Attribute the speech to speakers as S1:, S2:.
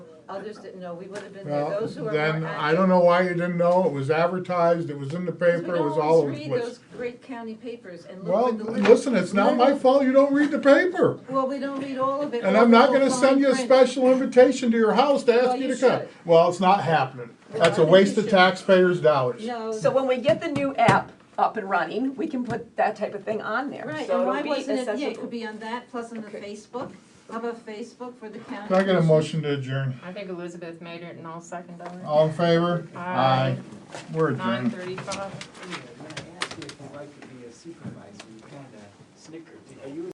S1: Others didn't know, we would have been there,
S2: Well,
S1: those who are more active.
S2: then, I don't know why you didn't know, it was advertised, it was in the
S1: Because we
S2: paper, it
S1: don't
S2: was
S1: always
S2: all over the
S1: Read those
S2: place.
S1: great county papers and look
S2: Well,
S1: at the little.
S2: listen, it's not my
S1: little-
S2: fault you don't read the paper.
S1: Well, we don't read all of it.
S2: And
S1: or
S2: I'm not
S1: the
S2: gonna
S1: fine
S2: send you a
S1: print.
S2: special invitation to your house to
S1: Well,
S2: ask you
S1: you
S2: to come.
S1: should.
S2: Well, it's not happening.
S1: Well, I
S2: That's a
S1: think you
S2: waste of
S1: should.
S2: taxpayers' dollars.
S1: No.
S3: So when we get the new app up and running, we can put that type of thing on there.
S1: Right,
S3: So
S1: and
S3: it'll
S1: why
S3: be
S1: wasn't it, yeah, it
S3: accessible.
S1: could be on that, plus on the
S3: Okay.
S1: Facebook, how about Facebook for the county?
S2: Can I get a
S1: commission?
S2: motion to adjourn?
S4: I think Elizabeth made it and I'll second that.
S2: All in favor?
S4: Aye.
S2: We're
S4: Nine
S2: adjourned.
S4: thirty-five.
S5: Anyway, when I asked you if you'd like to be a supervisor, you kinda snickered. Are you a